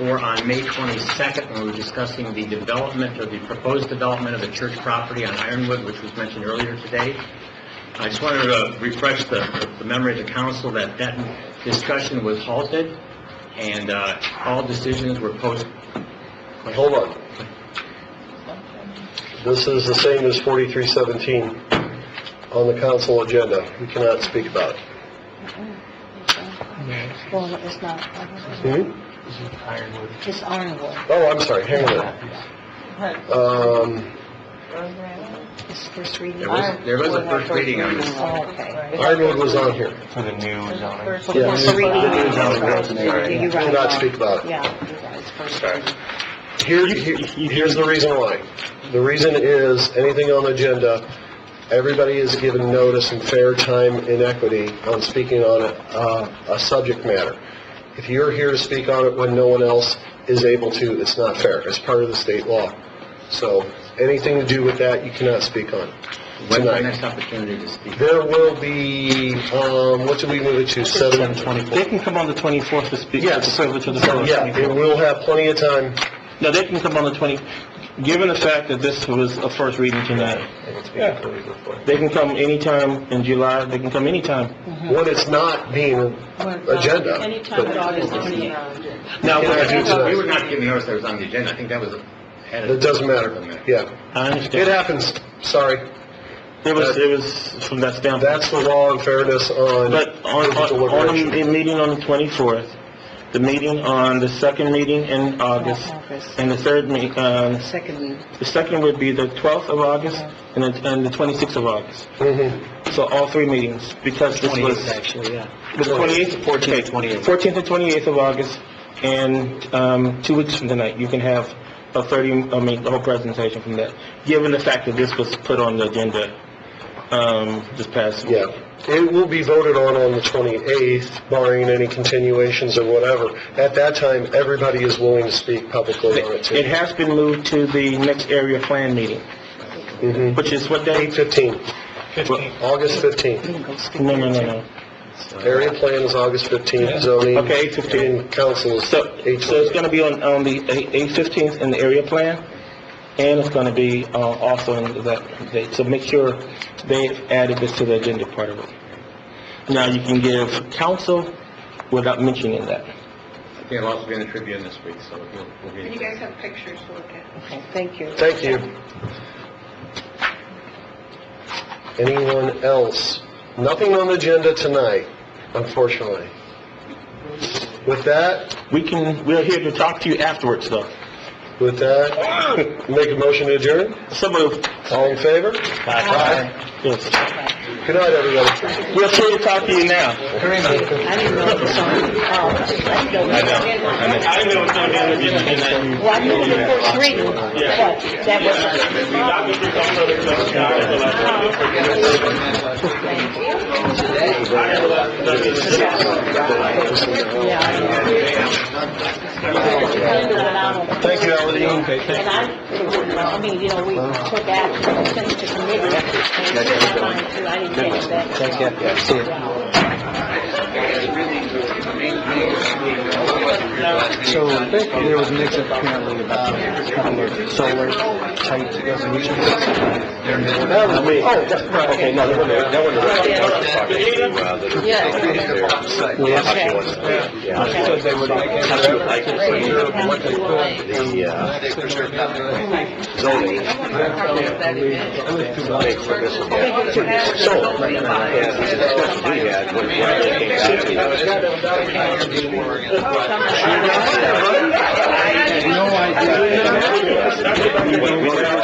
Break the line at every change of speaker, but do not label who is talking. or on May 22nd, when we were discussing the development, or the proposed development of the church property on Ironwood, which was mentioned earlier today. I just wanted to refresh the the memory of the council that that discussion was halted, and uh, all decisions were post,
Hold on. This is the same as 4317 on the council agenda. We cannot speak about it.
Well, it's not,
Hmm?
it's honorable,
Oh, I'm sorry, hang on. Um,
it's first reading.
There was- there was a first reading on this.
Oh, okay.
Ironwood was on here.
For the new zoning.
For
Yeah.
first reading.
Sorry.
You're right.
Do not speak about it.
Yeah, you're right, it's first reading.
Here, here- here's the reason why. The reason is, anything on the agenda, everybody is given notice and fair time and equity on speaking on a, uh, a subject matter. If you're here to speak on it when no one else is able to, it's not fair. It's part of the state law. So, anything to do with that, you cannot speak on
when's the
tonight.
next opportunity to speak?
There will be, um, what did we move it to? Seven?
They can come on the 24th to speak, to
Yes.
privilege of the floor.
Yeah, we will have plenty of time.
No, they can come on the 20, given the fact that this was a first reading tonight, Yeah. they can come anytime in July, they can come anytime.
When it's not being
uh,
agenda. but-
Now,
Yeah, I do too.
We were not giving notice that it was on the agenda, I think that was added.
It doesn't matter, yeah.
I
It
understand.
happens, sorry.
It was, it was from that standpoint.
That's the law and fairness on
But on, on, on
deliberation.
the meeting on the 24th, the meeting on the second meeting in August,
August.
and the third me, um,
Second,
the second would be the 12th of August and the, and the 26th of August.
Mhm.
So all three meetings, because this was...
actually, yeah.
The 28th?
14th, 28th.
14th and 28th of August, and, um, two weeks from tonight, you can have a 30, I mean, the whole presentation from that, given the fact that this was put on the agenda, um, this past...
Yeah. It will be voted on on the 28th, barring any continuations or whatever. At that time, everybody is willing to speak publicly on it,
It
too.
has been moved to the next area plan meeting,
Mhm.
which is what day?
8:15, August 15th.
you can go skip.
No, no, no, no.
Area plan is August 15th, zoning.
Okay, 8:15.
And council is
So, so it's
8:20.
gonna be on, on the eight fifteenth in the area plan, and it's gonna be, uh, also in that date, so make sure they've added this to the agenda part of it. Now, you can give counsel without mentioning that.
I think I'll also be in the Tribune this week, so we'll, we'll be.
You guys have pictures to look at.
Okay, Thank you.
Thank you. Anyone else? Nothing on the agenda tonight, unfortunately. With that,
We can, we're here to talk to you afterwards, though.
with that, make a motion to adjourn?
Some of,
All in favor?
yes,
Good night, everybody.
we're here to talk to you now.
I didn't know, so, oh, I didn't know.
I didn't know it was gonna be on the agenda tonight.
Well, I knew it was the first reading, but that was, yeah. I knew it, I don't-
Thank you, Alan.
And I, I mean, you know, we took action, sent it to committee, and it's in my mind, too, I didn't catch that. Thank you,
So there was mix up apparently about um, solar type resolutions.
That was me. Oh, that's right. Okay, no, that wasn't- that wasn't right.
Yeah. Okay.
So they would make it. What they could.
Right?
No idea.